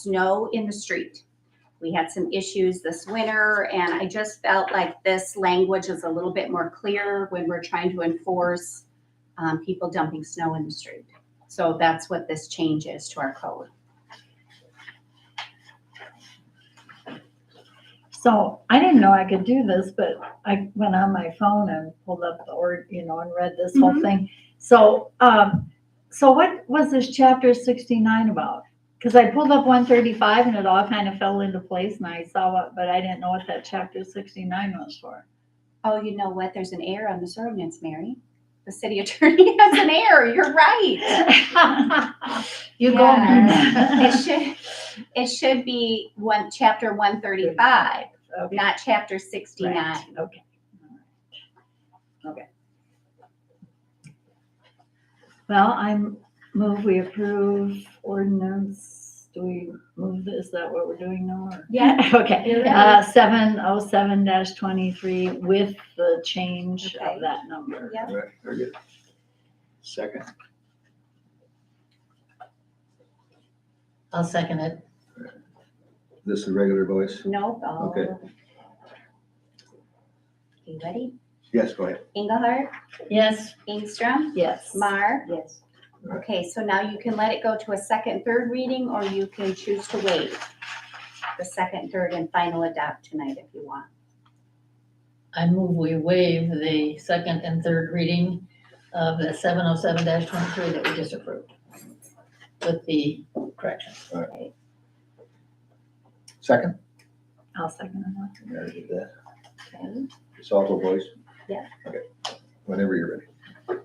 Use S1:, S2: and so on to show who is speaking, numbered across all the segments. S1: snow in the street. We had some issues this winter, and I just felt like this language is a little bit more clear when we're trying to enforce um, people dumping snow in the street. So that's what this change is to our code.
S2: So I didn't know I could do this, but I went on my phone and pulled up the or, you know, and read this whole
S1: Mhm.
S2: thing. So, um, so what was this chapter sixty-nine about? Cause I pulled up one thirty-five and it all kind of fell into place and I saw what, but I didn't know what that chapter sixty-nine was for.
S1: Oh, you know what? There's an error on this ordinance, Mary. The city attorney has an error. You're right.
S2: You go.
S1: It
S2: Mary.
S1: should, it should be one, chapter one thirty-five,
S2: Okay.
S1: not chapter
S2: Right,
S1: sixty-nine.
S2: Okay. Okay. Well, I'm, move we approve ordinance, do we move, this? is that what we're doing now? or-
S1: Yeah.
S2: Okay,
S1: You're
S2: uh, seven oh seven dash twenty-three with the change
S1: Okay.
S2: of that number.
S1: Yep.
S3: Right, very good. Second,
S4: I'll second it.
S3: this is regular voice?
S1: Nope. oh.
S3: Okay.
S1: You ready?
S3: Yes, go ahead.
S1: Engelhardt,
S4: Yes,
S1: Ingstrom,
S2: Yes.
S1: Mar.
S2: Yes.
S1: Okay, so now you can let it go to a second, third reading, or you can choose to wait the second, third, and final adopt tonight if you want.
S4: I move we waive the second and third reading of the seven oh seven twenty-three that we just approved with the correction.
S3: Second?
S2: I'll second that.
S3: Mary did that.
S1: Okay.
S3: It's also voice?
S1: Yeah.
S3: Okay, whenever you're ready.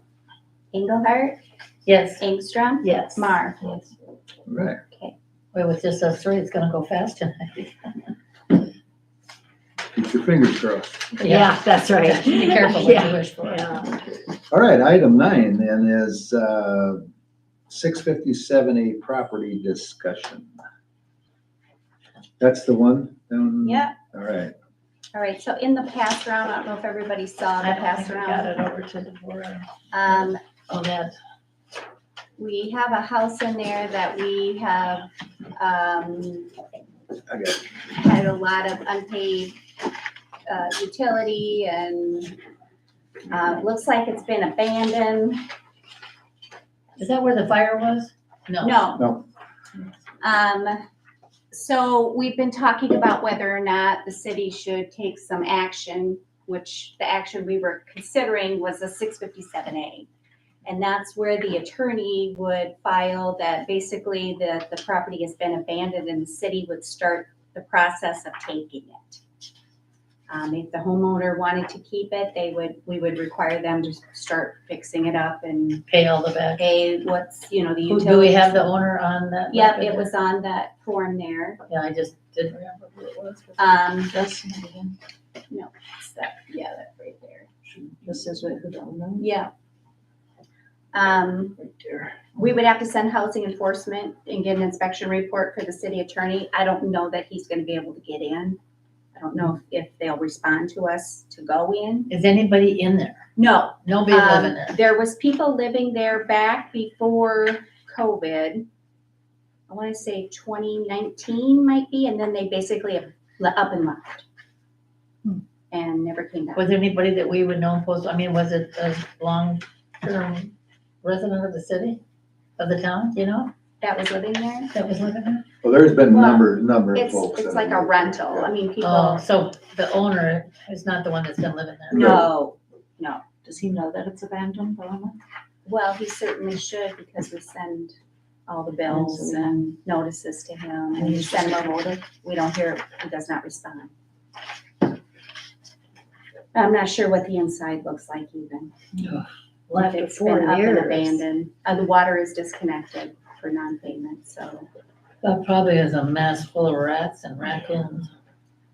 S1: Engelhardt,
S4: Yes,
S1: Ingstrom,
S2: Yes.
S1: Mar.
S3: All Right,
S4: wait, with just us three, it's gonna go fast tonight.
S3: keep your fingers crossed.
S2: Yeah, that's right.
S4: Be careful what
S2: Yeah,
S4: you wish for.
S2: yeah.
S3: All right, item nine then is uh, six fifty-seven A property discussion. That's the one down?
S1: Yep.
S3: All right,
S1: All right, so in the pass round, I don't know if everybody saw the
S4: I don't
S1: pass
S4: think we got
S1: round.
S4: it over to the board.
S1: Um,
S4: Oh, that,
S1: we have a house in there that we have, um,
S3: I got it.
S1: had a lot of unpaid, uh, utility and, uh, looks like it's been abandoned.
S4: is that where the fire was? No.
S1: No.
S3: No.
S1: Um, so we've been talking about whether or not the city should take some action, which the action we were considering was a six fifty-seven A. And that's where the attorney would file that basically that the property has been abandoned and the city would start the process of taking it. Um, if the homeowner wanted to keep it, they would, we would require them to start fixing it up and
S4: Pay all the back.
S1: pay what's, you know, the
S4: Who-
S1: utility.
S4: Do we have the owner on that?
S1: Yep,
S4: record?
S1: it was on that form there.
S4: Yeah, I just didn't remember who it was.
S1: Um,
S4: Justin again.
S1: it's that- yeah, that right there.
S4: This is what, who don't know?
S1: Yeah. Um,
S4: Right there.
S1: we would have to send housing enforcement and get an inspection report for the city attorney. I don't know that he's gonna be able to get in. I don't know if they'll respond to us to go in.
S4: Is anybody in there?
S1: No,
S4: Nobody living
S1: um,
S4: there?
S1: there was people living there back before COVID. I wanna say twenty nineteen might be, and then they basically le- up and left.
S2: Hmm.
S1: And never came back.
S4: Was there anybody that we would know in post, I mean, was it a long-term resident of the city, of the town, you know,
S1: that was living there.
S4: that was living there?
S3: Well, there's been a
S1: Well,
S3: number, number of
S1: It's,
S3: folks.
S1: it's
S3: that
S1: like a
S3: have-
S1: rental. I mean,
S4: Oh,
S1: people,
S4: so the owner is not the one that's been living there?
S1: no.
S5: Does he know that it's abandoned, Paloma?
S1: Well, he certainly should because we send all the bills and notices to him and we send him a folder. We don't hear, he does not respond. I'm not sure what the inside looks like even.
S2: Left
S1: If
S2: it
S1: It's been
S2: four
S1: up and
S2: years.
S1: abandoned. Uh, the water is disconnected for non-payment, so.
S4: That probably is a mess full of rats and raccoons.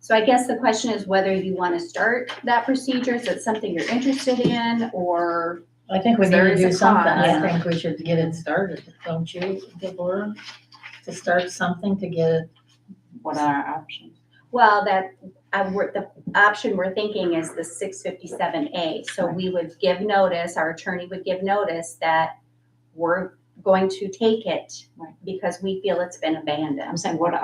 S1: So I guess the question is whether you want to start that procedure. Is it something you're interested in or
S4: I think we need
S1: There
S4: to
S1: is a
S4: do something, I
S1: cost.
S4: think we should get it started, don't you, Deborah? To start something to get it,
S5: What are our options?
S1: Well, that, I, we're, the option we're thinking is the six fifty-seven A, so we would give notice, our attorney would give notice that we're going to take it
S5: Right.
S1: because we feel it's been abandoned.
S5: I'm saying, what